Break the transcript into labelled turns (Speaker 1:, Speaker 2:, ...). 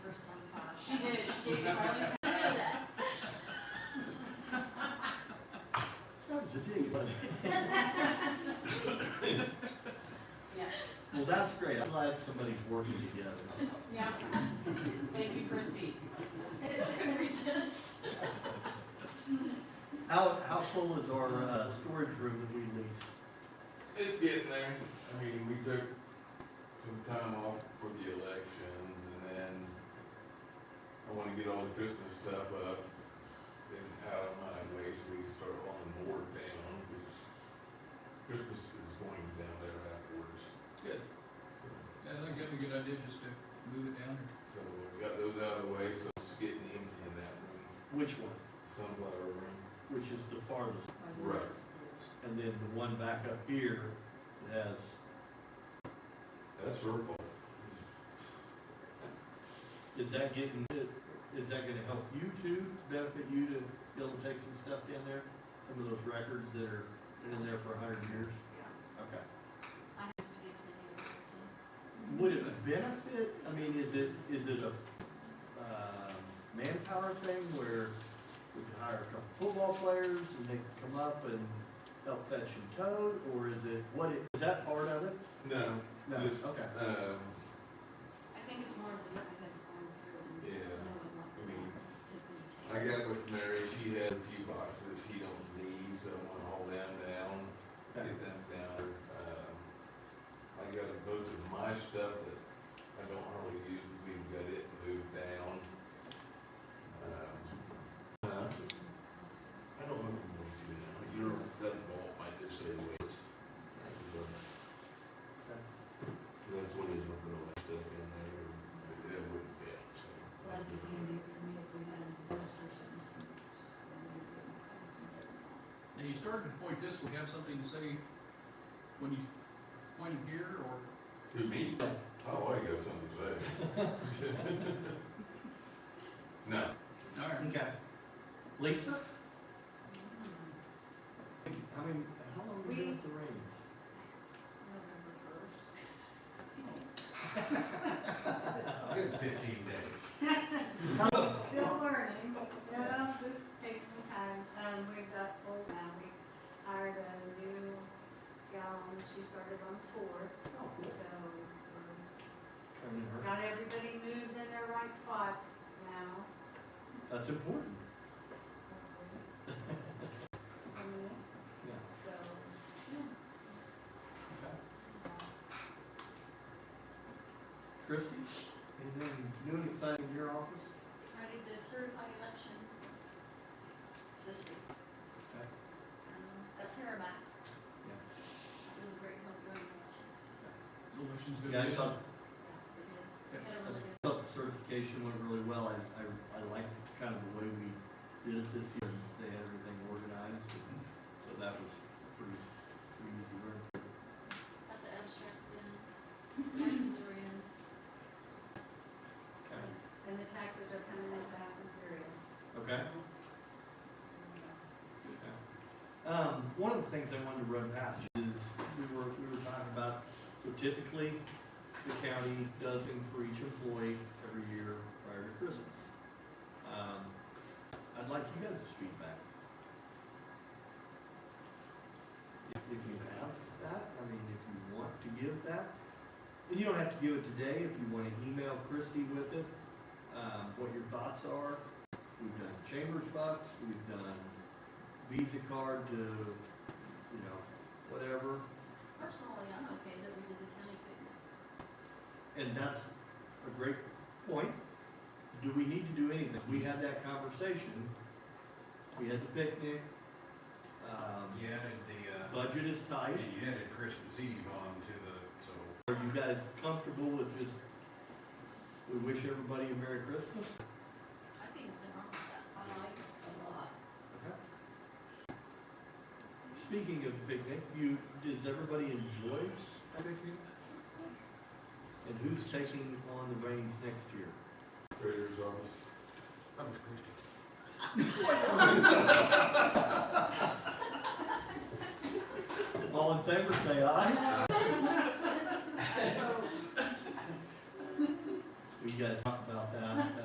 Speaker 1: state of Harlem, I know that.
Speaker 2: That was a dig, buddy.
Speaker 1: Yeah,
Speaker 2: Well, that's great. I'm glad somebody's working together.
Speaker 1: yeah. Thank you, Christie. Couldn't resist.
Speaker 2: How, how full is our, uh, storage room that we lease?
Speaker 3: It's getting there. I mean, we took some time off for the elections and then I wanna get all the Christmas stuff up and out of my way so we can start on the board down, because Christmas is going down there afterwards.
Speaker 4: Good.
Speaker 3: So,
Speaker 4: Yeah, I think that'd be a good idea, just to move it down
Speaker 3: so we got those out of the way, so it's getting empty in that room,
Speaker 2: Which one?
Speaker 3: sunflower room.
Speaker 2: Which is the farthest?
Speaker 3: Right.
Speaker 2: And then the one back up here that has,
Speaker 3: That's her fault.
Speaker 2: is that getting, is that gonna help you too? Benefit you to be able to take some stuff down there? Some of those records that are in there for a hundred years? Okay.
Speaker 1: I have to get to
Speaker 2: Would it benefit, I mean, is it, is it a, um manpower thing where we could hire a couple football players and they could come up and help fetch and tote, or is it, what, it- is that part of it?
Speaker 3: No,
Speaker 2: No,
Speaker 3: Yes.
Speaker 2: okay.
Speaker 3: um,
Speaker 1: I think it's more of the effort that's going through and
Speaker 3: Yeah,
Speaker 1: knowing what
Speaker 3: I mean,
Speaker 1: to be
Speaker 3: I
Speaker 1: taken.
Speaker 3: got with Mary, she had a few boxes that she don't need, so I'm gonna haul them down,
Speaker 2: Okay.
Speaker 3: get them down. Um, I got a bunch of my stuff that I don't hardly use, we've got it moved down. Um, uh, I don't know what to do now, you're, that vault might just say the way it's. That's what is, we're gonna let stuff in there, and it wouldn't fit, so.
Speaker 1: That'd be handy for me if we had a poster or something, just go in there and find something.
Speaker 4: there. Now, you started to point this, we have something to say when you point it here, or,
Speaker 3: Who, me? Oh, I got something to say. No,
Speaker 4: all right.
Speaker 2: Okay. Lisa? I mean, how long have you been at the Rings?
Speaker 1: Mm-hmm. November first.
Speaker 3: good fifteen days.
Speaker 5: Still learning, you know, just taking the time, um, we've got full now, we hired a new gal, and she started on the fourth,
Speaker 2: Oh,
Speaker 5: so,
Speaker 2: cool.
Speaker 5: um,
Speaker 2: Training her.
Speaker 5: got everybody moved in their right spots now.
Speaker 2: That's important.
Speaker 5: Um,
Speaker 2: Yeah.
Speaker 5: So, uh,
Speaker 2: Okay. Christie, anything new and exciting in your office?
Speaker 1: Ready to certify election this week.
Speaker 2: Okay.
Speaker 1: Um, Got Tara back.
Speaker 2: Yeah.
Speaker 1: It was a great help during the election.
Speaker 4: Solution's good.
Speaker 2: Yeah, I thought
Speaker 1: We did. We
Speaker 4: Yeah.
Speaker 1: had a really good.
Speaker 2: I thought the certification went really well. I, I, I liked kind of the way we did it this year. They had everything organized, and so that was pretty, pretty easy work.
Speaker 1: Got the abstracts in, taxes are in.
Speaker 5: and the taxes are coming in fast and furious.
Speaker 2: Okay?
Speaker 5: Um,
Speaker 2: Okay. Um, one of the things I wanted to run past you is, we were, we were talking about, so typically, the county does thing for each employee every year prior to Christmas. Um, I'd like you guys' feedback. If if you have that, I mean, if you want to give that, and you don't have to give it today, if you want to email Christie with it, um, what your thoughts are. We've done Chambers Bucks, we've done Visa card to, you know, whatever,
Speaker 1: Personally, I'm okay that we did the county picnic.
Speaker 2: and that's a great point. Do we need to do anything? We had that conversation, we had the picnic, um,
Speaker 6: You added the, uh,
Speaker 2: budget is tight.
Speaker 6: you added Christmas Eve on to the, so,
Speaker 2: Are you guys comfortable with just, we wish everybody a Merry Christmas?
Speaker 1: I see nothing wrong with that. I like it a lot.
Speaker 2: Speaking of picnic, you, does everybody enjoy a picnic? And who's taking on the reins next year?
Speaker 3: Treasurer's office.
Speaker 6: that was Christie.
Speaker 2: All in favor, say aye. We gotta talk about that